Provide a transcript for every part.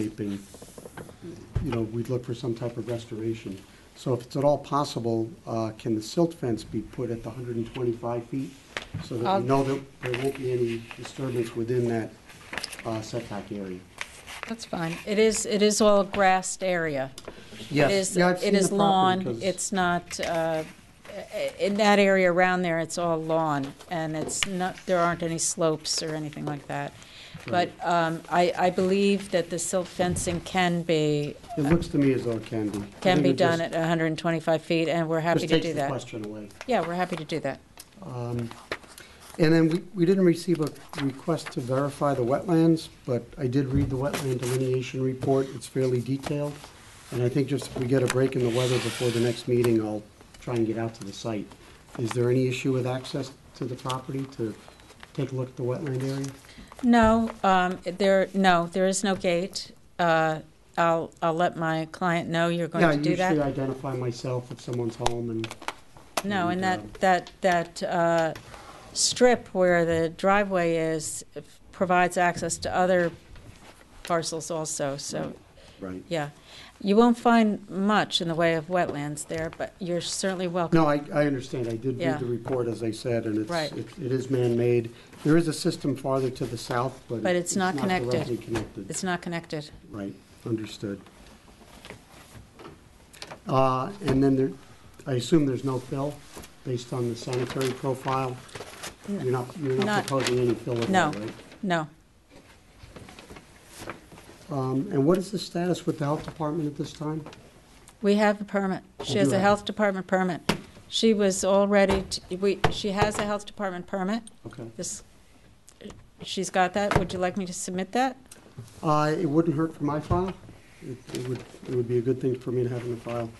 landscaping, you know, we'd look for some type of restoration. So if it's at all possible, uh, can the silt fence be put at the 125 feet? So that I'll- we know that there won't be any disturbance within that uh, setback area. That's fine. It is, it is all grassed area. It is- Yeah, I've seen It is the property, lawn, 'cause- it's not, uh, i- in that area around there, it's all lawn, and it's not, there aren't any slopes or anything like that. But um, I, I believe that the silt fencing can be, It looks to me as though it can be. I can think be it done just- at 125 feet, and we're happy to Just do takes the that. question away. Yeah, we're happy to do that. And then we, we didn't receive a request to verify the wetlands, but I did read the wetland delineation report. It's fairly detailed. And I think just if we get a break in the weather before the next meeting, I'll try and get out to the site. Is there any issue with access to the property to take a look at the wetland area? No, um, there, no, there is no gate. Uh, I'll, I'll let my client know you're going Yeah, I to do that. usually identify myself if someone's home and, No, and And, that, that, that uh, strip where the driveway is if- provides access to other parcels also, so, right. yeah. You won't find much in the way of wetlands there, but you're certainly welcome. No, I, I understand. I did Yeah. read the report, as I said, and it's, Right. it it is man-made. There is a system farther to the south, but. But it's not connected. directly connected. It's not connected. Right, understood. Uh, And then there, I assume there's no fill, based on the sanitary profile? You're not, you're not Not- proposing any fill at all, No, right? no. Um, And what is the status with the health department at this time? We have a permit. She has do a have- health department permit. She was all ready, to- we, she has a health department permit. Okay. This, she's got that. Would you like me to submit that? Uh, It wouldn't hurt for my file. It it would, it would be a good thing for me to have in the file.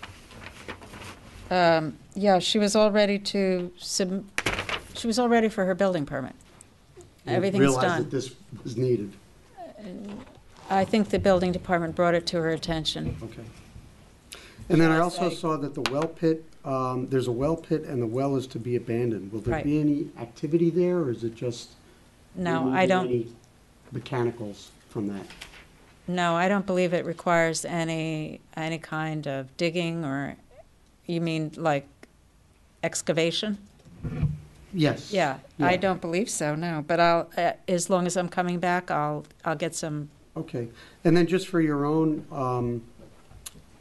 Um, Yeah, she was all ready to sub, she was all ready for her building permit. You Everything's Realize that done. this was needed. I think the building department brought it to her attention. Okay. And then I Shall I also say- saw that the well pit, um, there's a well pit and the well is to be abandoned. Will there Right. be any activity there or is it just? No, I removing don't, any Mechanicals from that? no, I don't believe it requires any, any kind of digging or, you mean like excavation? Yes. Yeah, I don't believe so, no, but I'll, uh, as long as I'm coming back, I'll, I'll get some, Okay. And then just for your own um,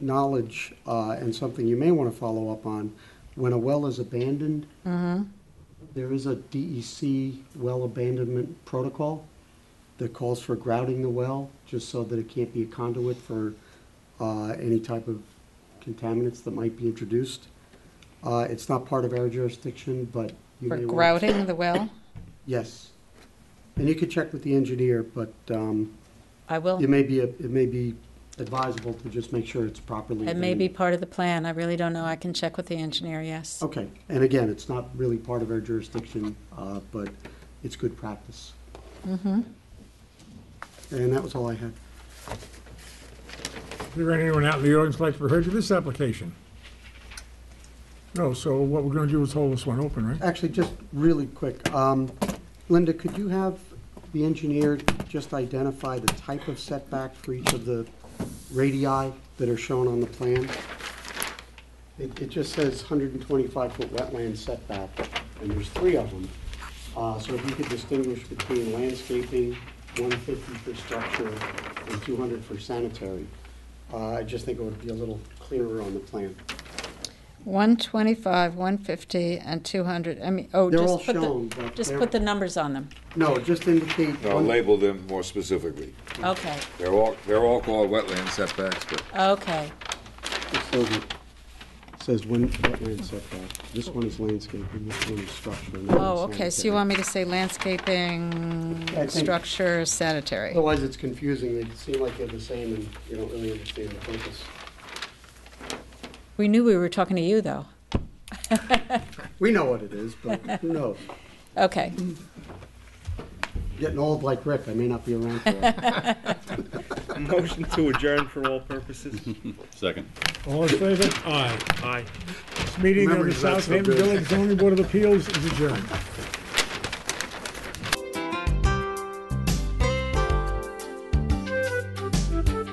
knowledge uh, and something you may want to follow up on, when a well is abandoned, Mm-hmm. there is a DEC well abandonment protocol that calls for grouting the well, just so that it can't be a conduit for uh, any type of contaminants that might be introduced. Uh, It's not part of our jurisdiction, but you for may want to grouting the well. Yes. And you could check with the engineer, but um, I will, it may be, it may be advisable to just make sure it's properly. it may be part of the plan, I really don't know, I can check with the engineer, yes. Okay, and again, it's not really part of our jurisdiction, uh, but it's good practice. Mm-hmm. And that was all I had. Is there anyone out in the audience who'd like to be heard to this application? No, so what we're gonna do is hold this one open, right? Actually, just really quick, um, Linda, could you have the engineer just identify the type of setback for each of the radii that are shown on the plan? It, it just says 125-foot wetland setback, and there's three of them. Uh, So if you could distinguish between landscaping, 150 for structure, and 200 for sanitary, Uh, I just think it would be a little clearer on the plan. 125, 150, and 200, I mean, oh, They're all just put shown, the, but just they're- put the numbers on them. No, just indicate. No, one- label them more specifically. Okay, They're all, they're all called wetland setbacks, but okay, It says it- it Says when, wetland setback. This one is landscaping, this one is structure. and that oh, one's okay, so you sanitary. want me to say landscaping, I think- structure, sanitary? Otherwise, it's confusing. They seem like they're the same and you don't really understand the purpose. We knew we were talking to you, though. We know what it is, but who knows? Okay, Getting old like Rick, I may not be around for it. Motion to adjourn for all purposes. Second. All in favor? Aye. Aye. This meeting of the Memories, that's so Southampton good. Village Zoning Board of Appeals is adjourned.